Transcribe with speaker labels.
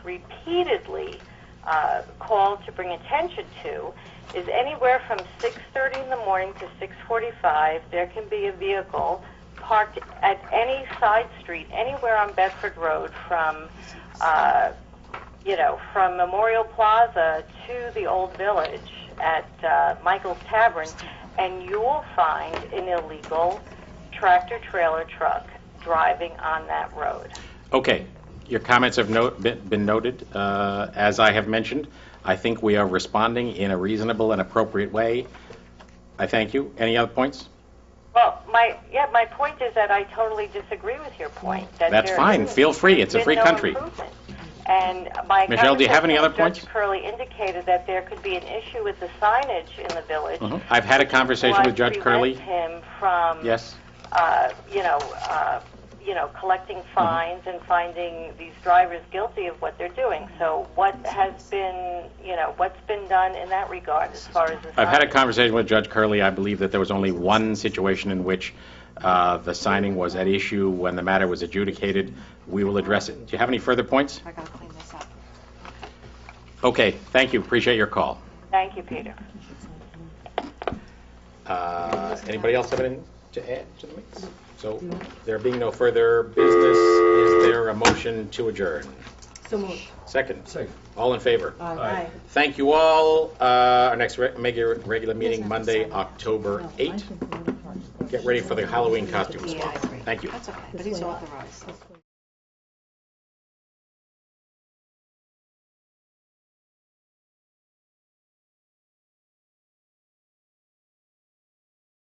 Speaker 1: repeatedly uh, called to bring attention to is anywhere from 6:30 in the morning to 6:45. There can be a vehicle parked at any side street anywhere on Bedford Road from. Uh, you know, from Memorial Plaza to the Old Village at uh, Michael's Tavern, and you'll find an illegal tractor trailer truck driving on that road.
Speaker 2: Okay, your comments have no- been been noted. Uh, As I have mentioned, I think we are responding in a reasonable and appropriate way. I thank you. Any other points?
Speaker 1: Well, my yeah, my point is that I totally disagree with your point. That
Speaker 2: That's
Speaker 1: there
Speaker 2: fine.
Speaker 1: isn't-
Speaker 2: Feel free. It's a
Speaker 1: been
Speaker 2: free
Speaker 1: no
Speaker 2: country.
Speaker 1: improvement. And my
Speaker 2: Michelle, do you have any
Speaker 1: conversation
Speaker 2: other
Speaker 1: with Judge
Speaker 2: points?
Speaker 1: Curley indicated that there could be an issue with the signage in the village.
Speaker 2: I've had a Uh-huh. conversation with
Speaker 1: What
Speaker 2: Judge Curley.
Speaker 1: prevents him from
Speaker 2: Yes?
Speaker 1: uh, you know, uh, you know,
Speaker 2: Uh-huh.
Speaker 1: collecting fines and finding these drivers guilty of what they're doing. So what has been, you know, what's been done in that regard as far as the
Speaker 2: I've had a
Speaker 1: signage?
Speaker 2: conversation with Judge Curley. I believe that there was only one situation in which uh, the signing was at issue when the matter was adjudicated. We will address it. Do you have any further points?
Speaker 3: I gotta clean this up.
Speaker 2: Okay, thank you. Appreciate your call.
Speaker 1: Thank you, Peter.
Speaker 2: Uh, Anybody else have anything to add to the mix? So there being no further business, is there a motion to adjourn?
Speaker 3: So moved.
Speaker 2: Second?
Speaker 4: Second.
Speaker 2: All in favor?
Speaker 3: Aye.
Speaker 2: Thank you all. Uh, Our next re- make your regular meeting Monday, October 8. Get ready for the Halloween costumes.
Speaker 3: Yeah, I agree.
Speaker 2: Thank you.
Speaker 3: That's okay, but he's off the rise.